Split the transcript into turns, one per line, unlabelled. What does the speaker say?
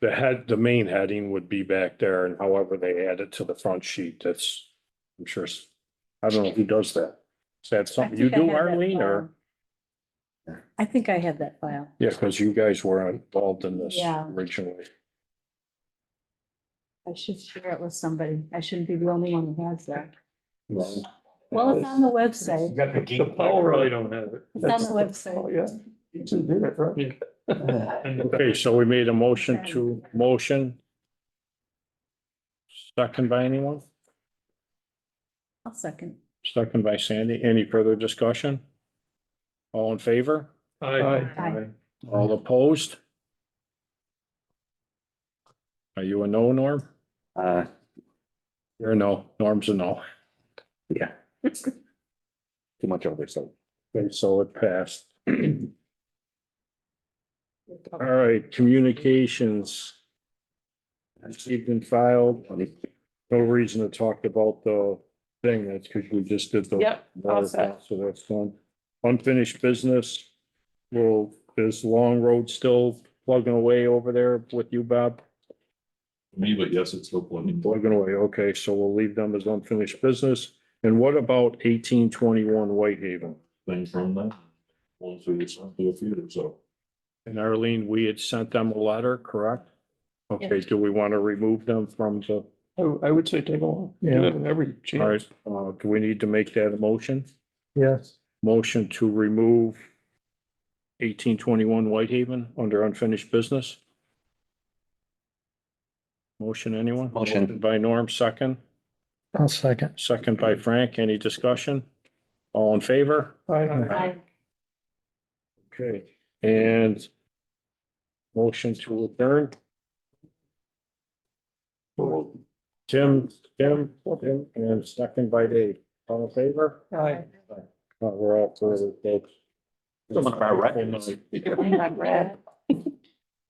the head, the main heading would be back there and however they add it to the front sheet, that's, I'm sure. s- I don't know who does that. Is that something you
think
do,
I had that
Arlene, or?
file. I think I have that file.
Yeah, because you guys were involved in this
Yeah.
originally.
I should share it with somebody. I shouldn't be the only one who has that.
Well,
Well, it's on the website.
got the
The Paul really don't have it.
It's on the website.
yeah. You just did it, right? Uh,
And
Okay, so we made a motion to motion. Second by anyone?
I'll second.
Second by Sandy. Any further discussion? All in favor?
Aye.
Aye.
All opposed? Are you a no, Norm?
Uh,
You're a no. Norm's a no.
yeah. Too much over, so.
Okay, so it passed. All right, communications. Received and filed. No reason to talk about the thing. That's because we just did the.
Yep, all set.
So that's done. Unfinished business. Well, is Long Road still plugging away over there with you, Bob?
Me, but yes, it's still plugging.
Plugging away. Okay, so we'll leave them as unfinished business. And what about eighteen twenty-one Whitehaven?
Things from that. Once we get some to a few, so.
And Arlene, we had sent them a letter, correct? Okay,
Yes.
do we want to remove them from the,
I, I would say take a look.
Yeah.
Every
all
chance.
right, uh, do we need to make that a motion?
Yes.
Motion to remove eighteen twenty-one Whitehaven under unfinished business? Motion, anyone?
Motion.
By Norm, second,
I'll second.
second by Frank, any discussion? All in favor?
Aye.
Aye.
Okay, and motion to adjourn, Tim, Tim, Tim, and second by Dave, all in favor?
Aye.
Uh, we're all for the.
Someone of our records.
Aye.